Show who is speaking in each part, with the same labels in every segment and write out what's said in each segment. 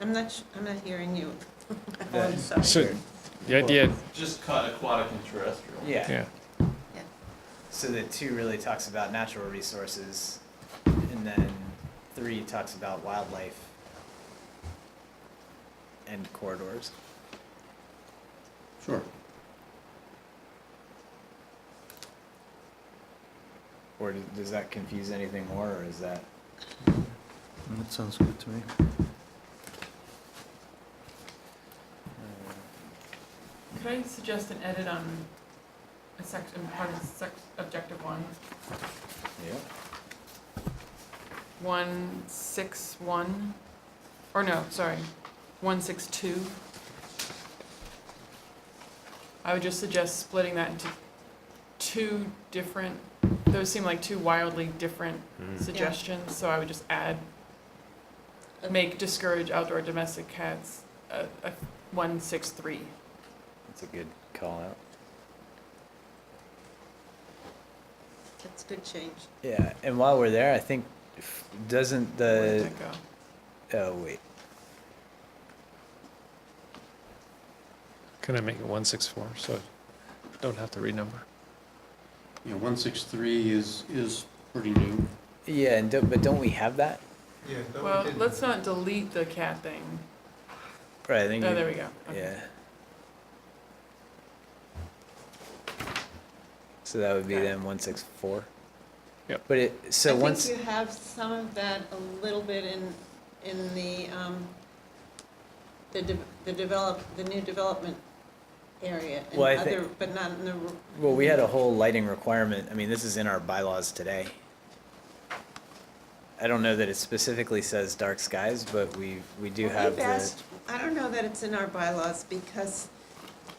Speaker 1: I'm not, sh- I'm not hearing you.
Speaker 2: Yeah.
Speaker 1: I'm sorry.
Speaker 3: So the idea,
Speaker 4: Just cut aquatic and terrestrial.
Speaker 2: Yeah,
Speaker 3: yeah,
Speaker 2: so that two really talks about natural resources, and then three talks about wildlife and corridors.
Speaker 5: Sure.
Speaker 2: Or does- does that confuse anything more, or is that?
Speaker 5: That sounds good to me.
Speaker 2: Uh,
Speaker 6: Could I suggest an edit on a section, part of sec, objective one,
Speaker 2: Yeah.
Speaker 6: one six one, or no, sorry, one six two? I would just suggest splitting that into two different, those seem like two wildly different
Speaker 2: Hmm.
Speaker 6: suggestions, so I would just add, make discourage outdoor domestic cats, uh, uh, one six three.
Speaker 2: That's a good call out.
Speaker 1: That's a good change.
Speaker 2: Yeah, and while we're there, I think, f- doesn't
Speaker 6: Where'd
Speaker 2: the,
Speaker 6: that go?
Speaker 2: oh, wait.
Speaker 3: can I make it one six four, so I don't have to renumber?
Speaker 5: Yeah, one six three is, is pretty new.
Speaker 2: Yeah, and don't, but don't we have that?
Speaker 6: Well, let's not delete the cat thing.
Speaker 2: Right, I
Speaker 6: Oh,
Speaker 2: think. you-
Speaker 6: there we go. Okay.
Speaker 2: Yeah. So that would be
Speaker 6: Okay.
Speaker 2: then one six four?
Speaker 3: Yep.
Speaker 2: But it, so
Speaker 1: I
Speaker 2: once,
Speaker 1: think you have some of that a little bit in, in the, um, the, de- the develop, the new development area. and
Speaker 2: Well, I thi-
Speaker 1: other, But not in the, r-
Speaker 2: well, we had a whole lighting requirement, I mean, this is in our bylaws today. I don't know that it specifically says dark skies, but we, we do
Speaker 1: Well,
Speaker 2: have
Speaker 1: we've
Speaker 2: the,
Speaker 1: asked- I don't know that it's in our bylaws, because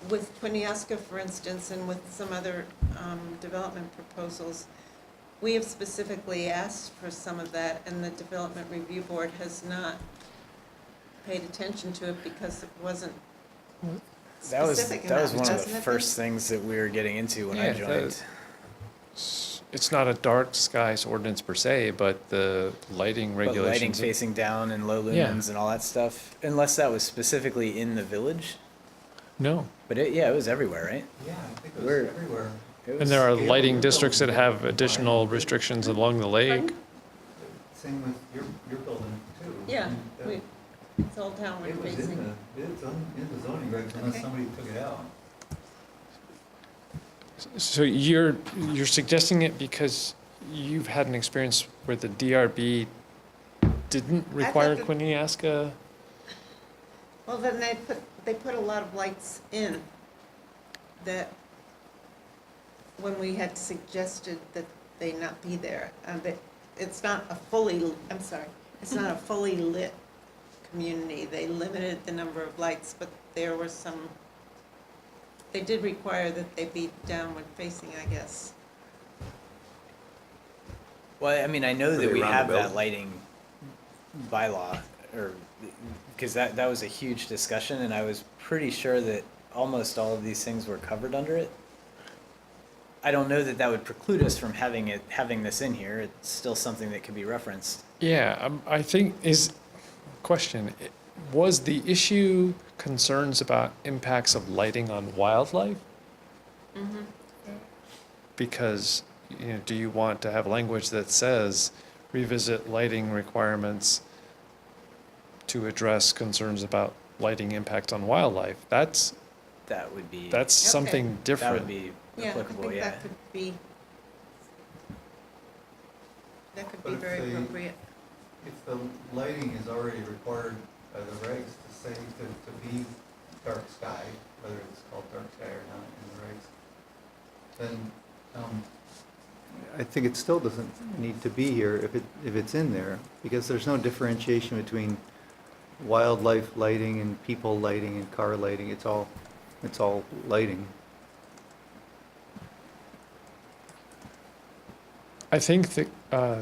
Speaker 1: with Quiniesca, for instance, and with some other um, development proposals, we have specifically asked for some of that, and the Development Review Board has not paid attention to it because it wasn't
Speaker 2: that was,
Speaker 1: specific
Speaker 2: that was
Speaker 1: enough,
Speaker 2: one of
Speaker 1: doesn't
Speaker 2: the
Speaker 1: it?
Speaker 2: first things that we were getting into when I
Speaker 3: Yeah, that-
Speaker 2: joined.
Speaker 3: S- It's not a dark skies ordinance per se, but the lighting
Speaker 2: But lighting
Speaker 3: regulations.
Speaker 2: facing down and low
Speaker 3: Yeah.
Speaker 2: lumens and all that stuff, unless that was specifically in the village,
Speaker 3: No,
Speaker 2: but it, yeah, it was everywhere, right?
Speaker 4: Yeah, I think
Speaker 2: it was Where-
Speaker 4: everywhere.
Speaker 2: It
Speaker 3: and
Speaker 2: was-
Speaker 3: there are lighting districts that have additional restrictions along the lake.
Speaker 4: Same with your, your building too.
Speaker 1: Yeah,
Speaker 4: That-
Speaker 1: we- It's all
Speaker 4: It
Speaker 1: downward
Speaker 4: was in
Speaker 1: facing.
Speaker 4: the, it's on, in the zoning regs
Speaker 1: Okay.
Speaker 4: unless somebody took it out.
Speaker 3: So you're, you're suggesting it because you've had an experience where the DRB didn't require uh,
Speaker 1: that-
Speaker 3: Quiniesca?
Speaker 1: Well, then they put, they put a lot of lights in that, when we had suggested that they not be there, uh, that it's not a fully, I'm sorry, it's not a fully lit community. They limited the number of lights, but there were some, they did require that they be downward facing, I guess.
Speaker 2: Well, I mean, I know
Speaker 7: Were
Speaker 2: that
Speaker 7: they
Speaker 2: we
Speaker 7: around
Speaker 2: have
Speaker 7: the
Speaker 2: that
Speaker 7: building?
Speaker 2: lighting bylaw, or, because that, that was a huge discussion, and I was pretty sure that almost all of these things were covered under it. I don't know that that would preclude us from having it, having this in here, it's still something that could be referenced.
Speaker 3: Yeah, um, I think is, question, i- was the issue concerns about impacts of lighting on wildlife? Because, you know, do you want to have language that says revisit lighting requirements to address concerns about lighting impact on wildlife? That's,
Speaker 2: That would be, that
Speaker 3: that's something
Speaker 2: would
Speaker 3: different.
Speaker 2: be
Speaker 1: Yeah, I
Speaker 2: applicable,
Speaker 1: think
Speaker 2: yeah.
Speaker 1: that could be, that could
Speaker 4: But
Speaker 1: be
Speaker 4: if
Speaker 1: very
Speaker 4: they-
Speaker 1: appropriate.
Speaker 4: If the lighting is already required by the regs to say, to, to be dark sky, whether it's called dark sky or not in the regs, then, um, I think it still doesn't need to be here if it, if it's in there, because there's no differentiation between wildlife lighting and people lighting and car lighting. It's all, it's all lighting.
Speaker 3: I think the, uh,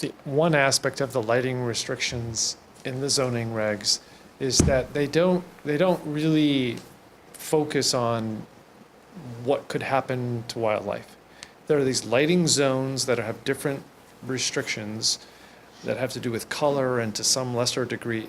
Speaker 3: the one aspect of the lighting restrictions in the zoning regs is that they don't, they don't really focus on what could happen to wildlife. There are these lighting zones that have different restrictions that have to do with color and to some lesser degree